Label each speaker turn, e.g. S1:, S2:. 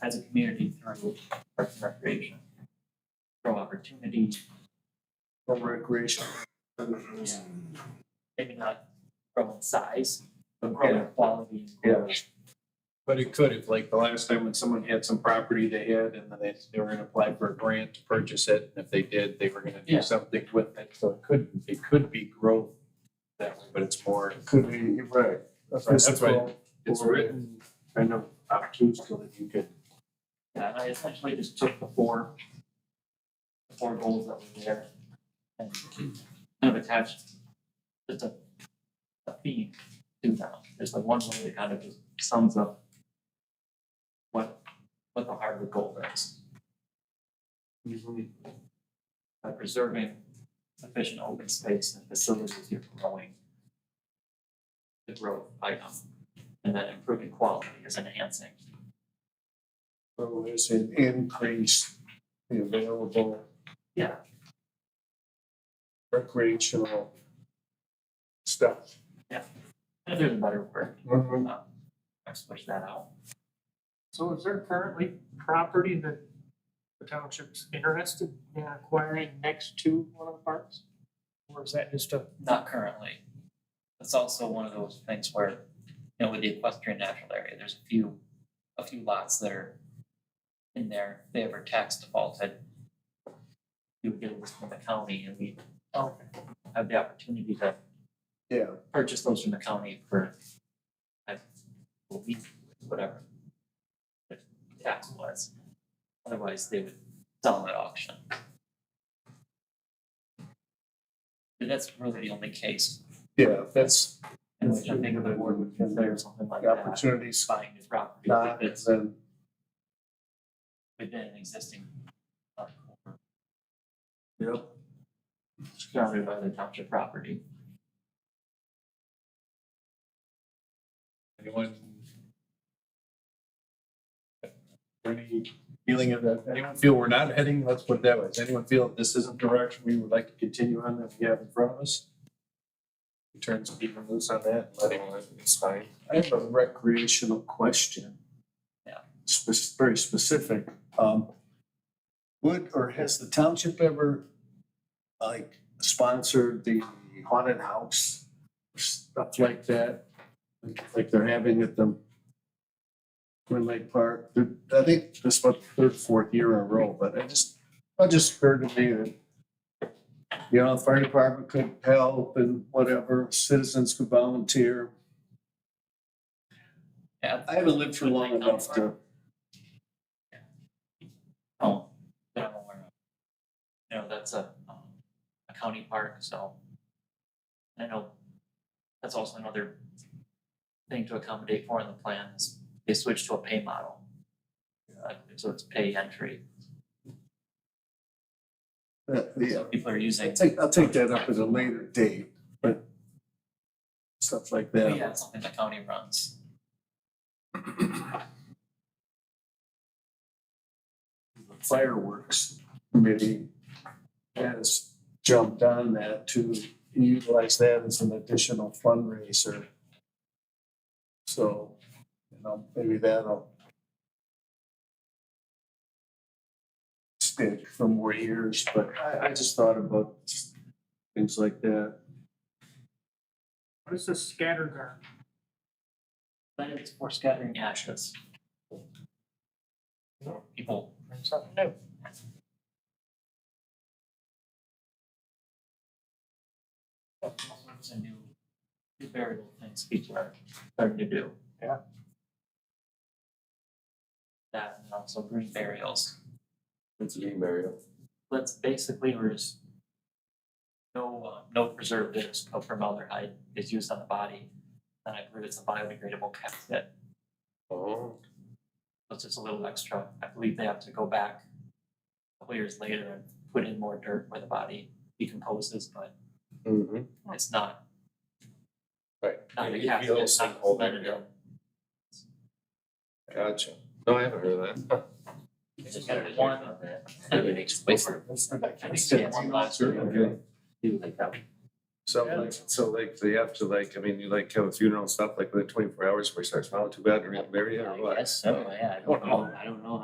S1: as a community through parks and recreation. Through opportunity,
S2: for recreation.
S1: maybe not grow in size, but grow in quality.
S2: Yeah.
S3: But it could, if like the last time when someone had some property they had and then they, they were gonna apply for a grant to purchase it, and if they did, they were gonna
S1: Yeah.
S3: do something with it, so it could, it could be growth that way, but it's more,
S2: Could be, right. a
S3: That's right, that's
S2: physical
S3: it's
S2: or-
S3: written kind of obtuse so that you could.
S1: Yeah, and I essentially just took the four, the four goals that were there and kind of attached just a, a theme to them. There's like one way that kind of just sums up what, what the heart of the goal is. By preserving sufficient open space and facilities you're growing the growth item. And then improving quality is enhancing.
S2: So there's an increase in available.
S1: Yeah.
S2: Recreational stuff.
S1: If there's a better word, um, I switched that out.
S4: So is there currently property that the township's interested in acquiring next to one of the parks? Or is that just a,
S1: Not currently. That's also one of those things where, you know, with the equestrian natural area, there's a few, a few lots that are in there, if they ever tax defaulted. You would get a list from the county and we
S4: okay,
S1: have the opportunity to
S2: Yeah,
S1: purchase those from the county for, I believe, whatever. The tax was, otherwise they would sell them at auction. But that's really the only case
S2: yeah, that's
S1: in which I think the board would consider something like
S2: the
S1: that,
S2: opportunities,
S1: buying new property
S2: not,
S1: that's
S2: then
S1: within an existing. uh, Surrounded by the township property.
S3: Anyone? Any feeling of that, anyone feel we're not heading, let's put it that way, does anyone feel this isn't the direction we would like to continue on that we have in front of us? We Turn some people loose on that, let anyone, it's fine.
S2: I have a recreational question.
S1: Yeah.
S2: Spec- very specific, um, would, or has the township ever, like, sponsored the haunted house? Stuff like that, like, like they're having at the Twin Lake Park, They're- I think this is what, third, fourth year in a row, but I just, I just heard to me that you know, fire department could help and whatever, citizens could volunteer,
S1: Yeah.
S2: I haven't lived for long enough to.
S1: Oh, that I'm aware of. You know, that's a, um, a county park, so. I know, that's also another thing to accommodate for in the plan is they switched to a pay model. Uh, so it's pay entry,
S2: Uh, yeah,
S1: so people are using,
S2: I'll take, I'll take that up at a later date, but stuff like
S1: but
S2: that.
S1: yeah, it's something the county runs.
S2: Fireworks committee has jumped on that to utilize that as an additional fundraiser. So, you know, maybe that'll stick for more years, but I, I just thought about things like that.
S4: what is this scatter garden?
S1: But it's for scattering ashes. People,
S4: That's Something new.
S1: all sorts of new, new burial things people are starting to do.
S4: Yeah.
S1: That and also green burials.
S5: It's a game burial.
S1: let's basically, we're just no, uh, no preservatives, no formaldehyde is used on the body. And I believe it's a biodegradable casket.
S5: Oh.
S1: That's just a little extra. I believe they have to go back a couple years later and put in more dirt where the body decomposes, but
S5: Mm-hmm.
S1: it's not,
S5: Right.
S1: not a
S5: It
S1: casket,
S5: heals
S1: it's
S5: and
S1: not
S5: all that, yeah.
S1: preventative.
S5: Gotcha. No, I haven't heard of that.
S1: It's just gotta be one.
S5: Everything's
S1: I think it's one last year.
S5: Okay.
S1: Do like that.
S2: So like, so like, they have to like, I mean, you like have a funeral and stuff like within twenty-four hours before you start smiling too bad or you get married or
S1: I
S2: what?
S1: guess so, yeah, I don't know, I don't know